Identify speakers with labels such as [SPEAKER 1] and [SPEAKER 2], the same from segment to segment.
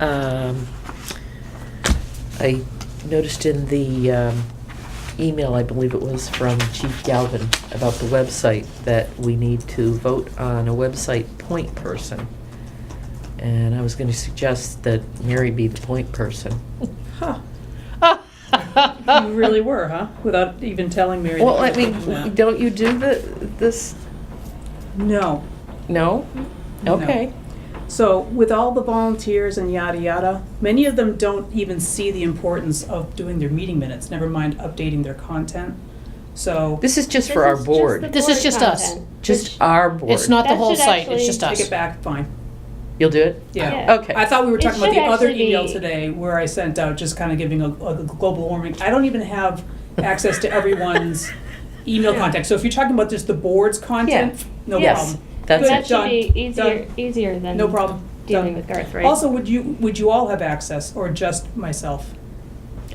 [SPEAKER 1] Um, I noticed in the um, email, I believe it was from Chief Galvin, about the website, that we need to vote on a website point person. And I was going to suggest that Mary be the point person.
[SPEAKER 2] Huh. You really were, huh? Without even telling Mary. that
[SPEAKER 1] Well,
[SPEAKER 2] you
[SPEAKER 1] I
[SPEAKER 2] were doing
[SPEAKER 1] mean,
[SPEAKER 2] that.
[SPEAKER 1] don't you do the, this,
[SPEAKER 2] No.
[SPEAKER 1] no?
[SPEAKER 2] No.
[SPEAKER 1] Okay.
[SPEAKER 2] So with all the volunteers and yada yada, many of them don't even see the importance of doing their meeting minutes, never mind updating their content. So
[SPEAKER 1] This is just for our board,
[SPEAKER 3] This is just us.
[SPEAKER 1] just our board.
[SPEAKER 3] It's not the
[SPEAKER 4] That
[SPEAKER 3] whole
[SPEAKER 4] should
[SPEAKER 3] site, it's
[SPEAKER 4] actually-
[SPEAKER 3] just
[SPEAKER 2] take it
[SPEAKER 3] us.
[SPEAKER 2] back, fine.
[SPEAKER 1] You'll do it?
[SPEAKER 2] Yeah.
[SPEAKER 4] Yeah.
[SPEAKER 1] Okay.
[SPEAKER 2] I thought we were
[SPEAKER 4] It
[SPEAKER 2] talking about
[SPEAKER 4] should
[SPEAKER 2] the other
[SPEAKER 4] actually
[SPEAKER 2] email
[SPEAKER 4] be-
[SPEAKER 2] today where I sent out just kind of giving a, a global warming. I don't even have access to everyone's email
[SPEAKER 3] Yeah.
[SPEAKER 2] contact. So if you're talking about just the board's
[SPEAKER 1] Yeah.
[SPEAKER 2] content, no
[SPEAKER 1] Yes.
[SPEAKER 2] problem.
[SPEAKER 1] That's
[SPEAKER 2] Good.
[SPEAKER 4] That
[SPEAKER 1] it.
[SPEAKER 4] should
[SPEAKER 2] Done.
[SPEAKER 4] be easier,
[SPEAKER 2] Done.
[SPEAKER 4] easier than
[SPEAKER 2] No problem.
[SPEAKER 4] dealing
[SPEAKER 2] Done.
[SPEAKER 4] with Garth, right?
[SPEAKER 2] Also, would you, would you all have access or just myself?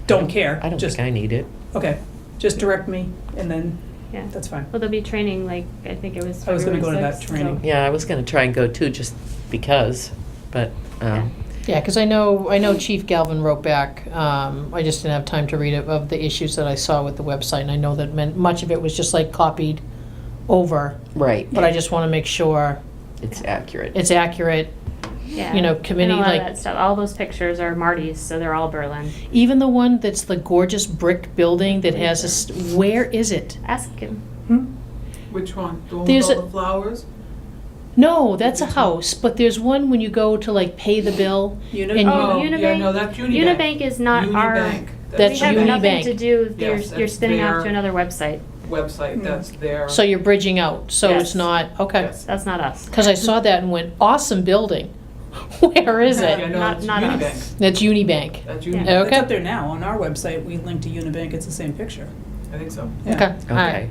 [SPEAKER 2] Don't care.
[SPEAKER 1] I don't
[SPEAKER 2] Just-
[SPEAKER 1] think I need it.
[SPEAKER 2] Okay, just direct me and then,
[SPEAKER 4] Yeah.
[SPEAKER 2] that's fine.
[SPEAKER 4] Well, there'll be training, like, I think it was
[SPEAKER 2] I was gonna
[SPEAKER 4] February
[SPEAKER 2] go to that
[SPEAKER 4] 6th,
[SPEAKER 2] training.
[SPEAKER 4] so-
[SPEAKER 1] Yeah, I was gonna try and go too, just because, but, um,
[SPEAKER 3] Yeah, because I know, I know Chief Galvin wrote back, um, I just didn't have time to read it, of the issues that I saw with the website, and I know that meant, much of it was just like copied over,
[SPEAKER 1] right,
[SPEAKER 3] but I just want to make sure
[SPEAKER 1] it's accurate.
[SPEAKER 3] it's accurate.
[SPEAKER 4] Yeah.
[SPEAKER 3] You know, committee,
[SPEAKER 4] And a lot
[SPEAKER 3] like-
[SPEAKER 4] of that stuff, all those pictures are Marty's, so they're all Berlin.
[SPEAKER 3] Even the one that's the gorgeous brick building that has a, st- where is it?
[SPEAKER 4] Ask him.
[SPEAKER 2] Hmm?
[SPEAKER 5] Which one? The one with
[SPEAKER 3] There's
[SPEAKER 5] all
[SPEAKER 3] a-
[SPEAKER 5] the flowers?
[SPEAKER 3] No, that's a house, but there's one when you go to like pay the bill,
[SPEAKER 2] Unit-
[SPEAKER 3] And-
[SPEAKER 5] Oh, yeah,
[SPEAKER 4] Unibank-
[SPEAKER 5] no, that's Unibank.
[SPEAKER 4] Unibank is not our,
[SPEAKER 5] Unibank.
[SPEAKER 3] That's
[SPEAKER 4] we have nothing
[SPEAKER 3] Unibank.
[SPEAKER 4] to do,
[SPEAKER 5] Yes,
[SPEAKER 4] you're, you're
[SPEAKER 5] that's
[SPEAKER 4] spinning off
[SPEAKER 5] their-
[SPEAKER 4] to another website. Hmm.
[SPEAKER 5] Website, that's their.
[SPEAKER 3] so you're bridging out, so it's
[SPEAKER 4] Yes.
[SPEAKER 3] not, okay.
[SPEAKER 5] Yes.
[SPEAKER 4] That's not us.
[SPEAKER 3] Because I saw that and went, awesome building, where is
[SPEAKER 5] Yeah,
[SPEAKER 3] it?
[SPEAKER 5] no,
[SPEAKER 4] Not-
[SPEAKER 5] that's
[SPEAKER 4] not us.
[SPEAKER 5] Unibank.
[SPEAKER 3] That's Unibank,
[SPEAKER 5] That's
[SPEAKER 4] Yeah.
[SPEAKER 5] Unibank.
[SPEAKER 2] It's
[SPEAKER 3] Okay.
[SPEAKER 2] up there now, on our website, we link to Unibank, it's the same picture.
[SPEAKER 5] I think so.
[SPEAKER 2] Yeah.
[SPEAKER 3] okay, all right.
[SPEAKER 1] Okay,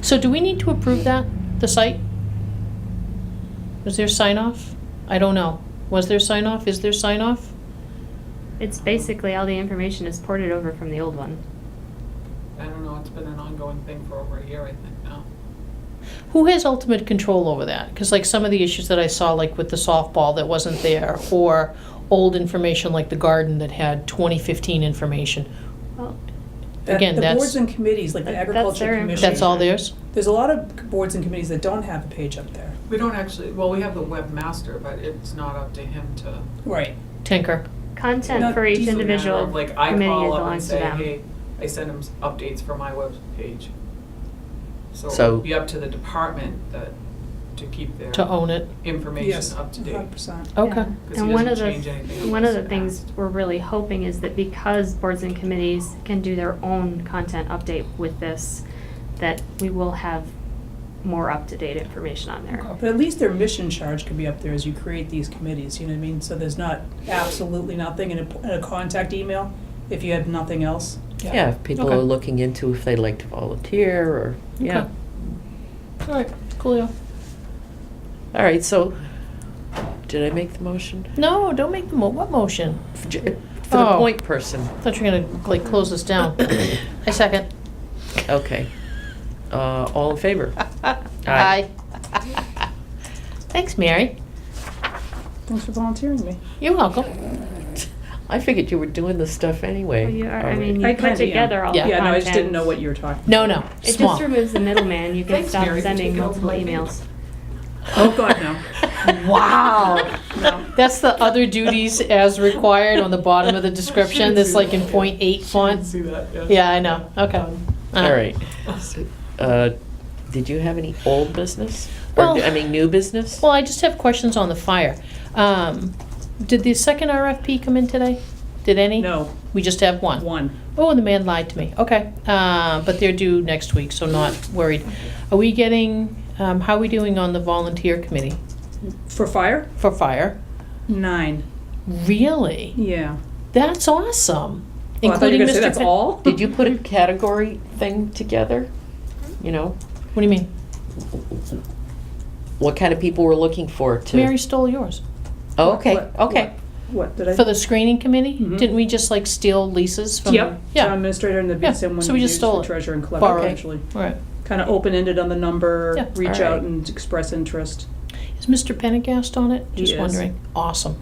[SPEAKER 3] So do we need to approve that, the site? Was there sign off? I don't know. Was there sign off? Is there sign off?
[SPEAKER 4] It's basically all the information is ported over from the old one.
[SPEAKER 5] I don't know, it's been an ongoing thing for over a year, I think, now.
[SPEAKER 3] Who has ultimate control over that? Because like some of the issues that I saw, like with the softball that wasn't there, or old information like the garden that had 2015 information,
[SPEAKER 4] Well,
[SPEAKER 2] That-
[SPEAKER 3] Again,
[SPEAKER 2] The
[SPEAKER 3] that's-
[SPEAKER 2] boards and committees, like the
[SPEAKER 4] That- that's
[SPEAKER 2] agriculture
[SPEAKER 4] their
[SPEAKER 2] commission.
[SPEAKER 3] that's all theirs?
[SPEAKER 2] There's a lot of boards and committees that don't have a page up there.
[SPEAKER 5] We don't actually, well, we have the webmaster, but it's not up to him to.
[SPEAKER 2] Right.
[SPEAKER 3] Tinker.
[SPEAKER 4] Content
[SPEAKER 2] No,
[SPEAKER 4] for
[SPEAKER 2] these
[SPEAKER 4] each
[SPEAKER 5] It's a matter
[SPEAKER 4] individual
[SPEAKER 5] of, Like, I
[SPEAKER 4] committee
[SPEAKER 5] call up and
[SPEAKER 4] belongs to
[SPEAKER 5] say,
[SPEAKER 4] them.
[SPEAKER 5] hey, I send him s- updates for my webpage. So
[SPEAKER 1] So-
[SPEAKER 5] it'd be up to the department that, to keep their
[SPEAKER 3] to own it.
[SPEAKER 2] Yes,
[SPEAKER 5] information up to date.
[SPEAKER 2] Hundred percent.
[SPEAKER 3] Okay.
[SPEAKER 4] Yeah.
[SPEAKER 5] 'Cause he
[SPEAKER 4] And one of
[SPEAKER 5] doesn't
[SPEAKER 4] the,
[SPEAKER 5] change anything
[SPEAKER 4] one of the
[SPEAKER 5] unless
[SPEAKER 4] things
[SPEAKER 5] asked.
[SPEAKER 4] we're really hoping is that because boards and committees can do their own content update with this, that we will have more up-to-date information on there.
[SPEAKER 2] But at least their mission charge could be up there as you create these committees, you know what I mean? So there's not absolutely nothing in a, in a contact email, if you have nothing else.
[SPEAKER 1] yeah, if people
[SPEAKER 3] Okay.
[SPEAKER 1] are looking into if they'd like to volunteer, or, yeah.
[SPEAKER 3] Okay. All right, coolio.
[SPEAKER 1] All right, so, did I make the motion?
[SPEAKER 3] No, don't make the mo- what motion?
[SPEAKER 1] For j- for the
[SPEAKER 3] Oh.
[SPEAKER 1] point person,
[SPEAKER 3] Thought you were gonna like close this down. I second.
[SPEAKER 1] okay. Uh, all in favor?
[SPEAKER 3] Aye. Thanks, Mary.
[SPEAKER 2] Thanks for volunteering me.
[SPEAKER 3] You're welcome.
[SPEAKER 1] I figured you were doing this stuff anyway.
[SPEAKER 4] Well, you are- I
[SPEAKER 1] already.
[SPEAKER 4] mean,
[SPEAKER 2] I
[SPEAKER 4] you put
[SPEAKER 2] kinda am.
[SPEAKER 4] together all the
[SPEAKER 3] Yeah.
[SPEAKER 4] content.
[SPEAKER 2] Yeah, no, I just didn't know what you were talking.
[SPEAKER 3] No, no,
[SPEAKER 4] It
[SPEAKER 3] small.
[SPEAKER 4] just removes the middleman. You can
[SPEAKER 5] Thanks,
[SPEAKER 4] stop
[SPEAKER 5] Mary, for
[SPEAKER 4] sending
[SPEAKER 5] taking
[SPEAKER 4] multiple
[SPEAKER 5] over.
[SPEAKER 4] emails.
[SPEAKER 2] Oh, God, no.
[SPEAKER 3] wow.
[SPEAKER 2] No.
[SPEAKER 3] That's the other duties as required on the bottom of the description. That's like in point eight font.
[SPEAKER 5] See that, yeah.
[SPEAKER 3] Yeah, I know. Okay.
[SPEAKER 1] All right. Uh, Did you have any old business? Or,
[SPEAKER 3] Well-
[SPEAKER 1] I mean, new business?
[SPEAKER 3] Uh, Well, I just have questions on the fire. Um, did the second RFP come in today? Did any?
[SPEAKER 2] No,
[SPEAKER 3] We just have one.
[SPEAKER 2] one.
[SPEAKER 3] Oh, the man lied to me. Okay. Uh, but they're due next week, so not worried. Are we getting, um, how are we doing on the volunteer committee
[SPEAKER 2] For fire?
[SPEAKER 3] for fire?
[SPEAKER 2] Nine.
[SPEAKER 3] Really?
[SPEAKER 2] Yeah.
[SPEAKER 3] That's awesome.
[SPEAKER 2] Well, Oh, I thought you
[SPEAKER 3] Including
[SPEAKER 2] were
[SPEAKER 3] Mr.
[SPEAKER 2] gonna say That's
[SPEAKER 3] Pitt-
[SPEAKER 2] all?
[SPEAKER 1] Did you put a category thing together? You know,
[SPEAKER 3] What do you mean?
[SPEAKER 1] what kind of people we're looking for to?
[SPEAKER 3] Mary stole yours.
[SPEAKER 1] Oh, okay,
[SPEAKER 2] What-
[SPEAKER 1] okay.
[SPEAKER 2] What, did I?
[SPEAKER 3] For the screening committee?
[SPEAKER 2] Mhm.
[SPEAKER 3] Didn't we just like steal Lisa's from?
[SPEAKER 2] Yep, town
[SPEAKER 3] Yeah,
[SPEAKER 2] administrator and the
[SPEAKER 3] Yeah,
[SPEAKER 2] bid someone
[SPEAKER 3] so we just
[SPEAKER 2] used
[SPEAKER 3] stole
[SPEAKER 2] the
[SPEAKER 3] it.
[SPEAKER 2] treasurer and
[SPEAKER 3] Borrowed.
[SPEAKER 2] clerk, actually.
[SPEAKER 3] all right.
[SPEAKER 2] Kind of open-ended on the
[SPEAKER 3] Yeah,
[SPEAKER 2] number, reach
[SPEAKER 1] all right.
[SPEAKER 2] out and express interest.
[SPEAKER 3] Is Mr. Pendergast on it?
[SPEAKER 2] He
[SPEAKER 3] Just
[SPEAKER 2] is.
[SPEAKER 3] wondering. Awesome.